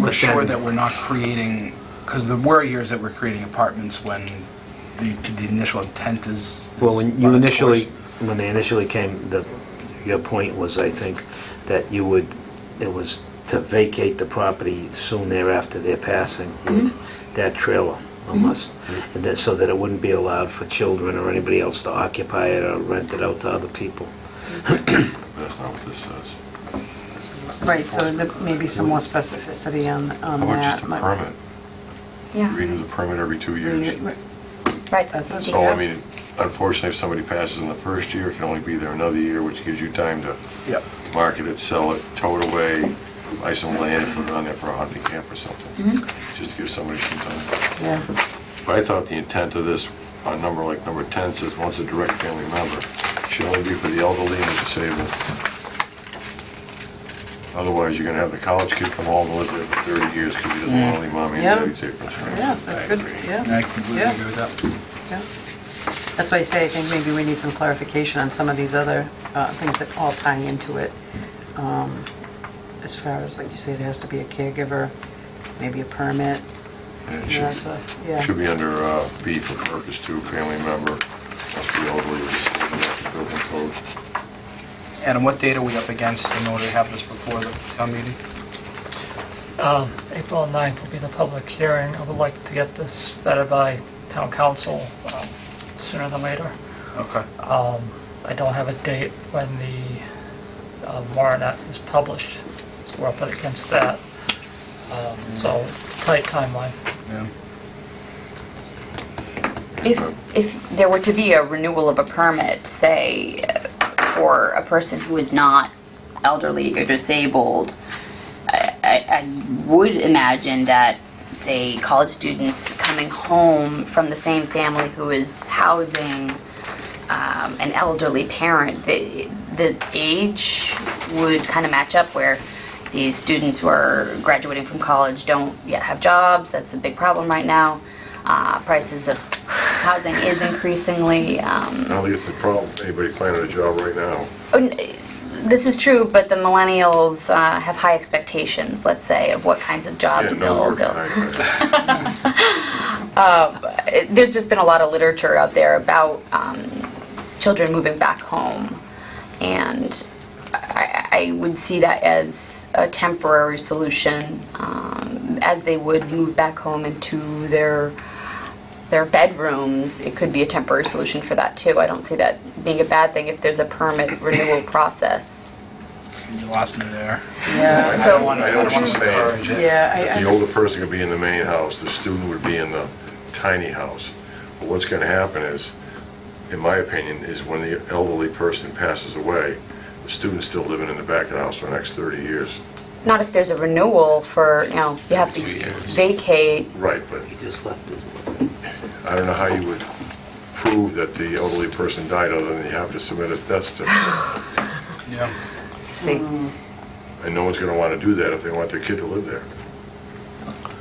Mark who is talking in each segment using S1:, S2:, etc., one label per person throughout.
S1: We're
S2: But
S1: sure
S2: then-
S1: that we're not creating, because the worry here is that we're creating apartments when the, the initial intent is.
S2: Well, when
S1: is
S2: you
S1: run its
S2: initially,
S1: course.
S2: when they initially came, the, your point was, I think, that you would, it was to vacate the property soon thereafter their passing with that trailer, unless, and that, so that it wouldn't be allowed for children or anybody else to occupy it or rent it out to other people.
S3: That's not what this says.
S4: Right, so there may be some more specificity on, on
S3: How about
S4: that.
S3: just a
S4: My-
S3: permit?
S5: Yeah,
S3: Renew the permit every two years.
S4: Right,
S5: right, this was a
S3: So, I
S5: year.
S3: mean, unfortunately, if somebody passes in the first year, it can only be there another year, which gives you time to
S1: Yep.
S3: market it, sell it, tow it away, buy some land, put it on there for a hunting camp or something, just to give somebody some time.
S4: Yeah,
S3: But I thought the intent of this, a number like number 10 says, once a direct family member, should only be for the elderly and the disabled. Otherwise, you're going to have the college kid come home and live there for 30 years because he doesn't want to leave mommy
S4: Mm. Yeah.
S3: and daddy's aprons. right?
S4: yeah, that's good,
S1: And
S4: yeah,
S1: I completely
S4: Yeah.
S1: agree with that.
S4: yeah. That's why I say I think maybe we need some clarification on some of these other uh, things that all tie into it. Um, As far as, like you say, there has to be a caregiver, maybe a permit.
S3: And it
S4: you know, that's
S3: should-
S4: a- Yeah,
S3: Should be under uh, B for purpose two, family member, must be elderly or disabled, that's the building code.
S1: Adam, what date are we up against in order to have this before the town meeting?
S6: Um, April 9th will be the public hearing. I would like to get this vetted by town council um, sooner than later.
S1: Okay.
S6: Um, I don't have a date when the uh, warrant act is published, so we're up against that. Um, So it's a tight timeline.
S1: Yeah.
S5: If, if there were to be a renewal of a permit, say, for a person who is not elderly or disabled, I, I, I would imagine that, say, college students coming home from the same family who is housing um, an elderly parent, the, the age would kind of match up where these students who are graduating from college don't yet have jobs. That's a big problem right now. Uh, prices of housing is increasingly. Um,
S3: I don't think it's a problem, for anybody finding a job right now.
S5: Oh, n- This is true, but the millennials uh, have high expectations, let's say, of what kinds of jobs
S3: Yeah, no
S5: they'll.
S3: work,
S5: they'll-
S3: right,
S5: Uh, There's just been a lot of literature out there about um, children moving back home, and I, I I would see that as a temporary solution, um, as they would move back home into their their bedrooms. It could be a temporary solution for that too. I don't see that being a bad thing if there's a permit renewal process.
S1: You lost me there.
S4: yeah,
S3: I
S5: So-
S3: don't wanna- I know what you're saying.
S1: Encourage it.
S4: yeah. I- I
S3: The
S4: just-
S3: older person could be in the main house, the student would be in the tiny house. But what's going to happen is, in my opinion, is when the elderly person passes away, the student's still living in the back of the house for the next 30 years.
S5: Not if there's a renewal for, you know, you have to vacate.
S3: Right, but
S2: You just left this one.
S3: I don't know how you would prove that the elderly person died other than you have to submit a death certificate.
S1: Yeah.
S5: See,
S3: And no one's going to want to do that if they want their kid to live there.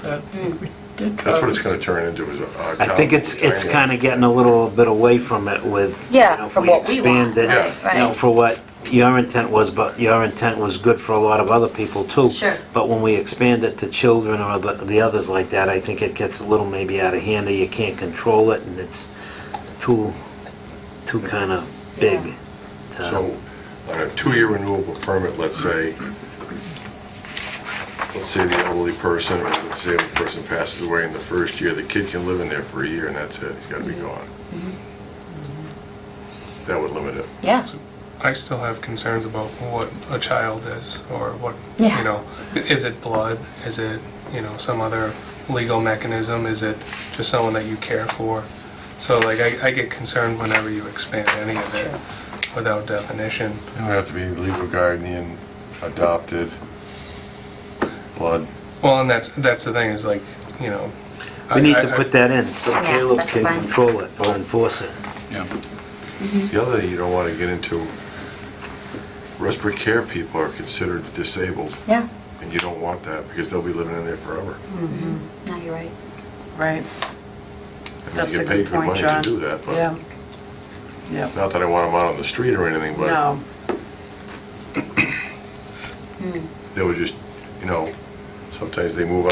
S6: Uh, we did try
S3: That's what it's
S6: this-
S3: going to turn into, is a...
S2: I think it's, it's kind of getting a little bit away from it with, you
S5: Yeah,
S2: know, if
S5: from
S2: we
S5: what we
S2: expand
S5: want,
S2: it,
S3: right,
S2: you know,
S5: right.
S2: for what your intent was, but your intent was good for a lot of other people too.
S5: Sure.
S2: But when we expand it to children or the, the others like that, I think it gets a little maybe out of hand, or you can't control it, and it's too, too kind of big. to-
S3: So, on a two-year renewable permit, let's say, let's say the elderly person or the disabled person passes away in the first year, the kid can live in there for a year and that's it, he's got to
S4: Mm-hmm.
S3: be gone. That would limit it.
S5: yeah,
S7: I still have concerns about what a child is or what,
S5: Yeah.
S7: you know, is it blood? Is it, you know, some other legal mechanism? Is it just someone that you care for? So like I, I get concerned whenever you expand any of it without definition.
S3: It would have to be legal guardian, adopted, blood.
S7: Well, and that's that's the thing is like, you know,
S2: We need
S7: I-
S2: to
S7: I-
S2: put that in, so
S5: Yeah,
S2: Caleb can
S5: specify.
S2: control it or enforce it.
S1: Yeah.
S4: Mm-hmm.
S3: The other thing you don't want to get into, respiratory care people are considered disabled
S5: yeah,
S3: and you don't want that because they'll be living in there forever.
S5: no, you're right.
S4: Right,
S3: I mean,
S4: that's
S3: you
S4: a
S3: get paid
S4: good
S3: good
S4: point,
S3: money to
S4: John.
S3: do that, but...
S4: Yeah, yeah,
S3: Not that I want them out on the street or anything, but
S4: no,
S3: they were just, you know, Sometimes they move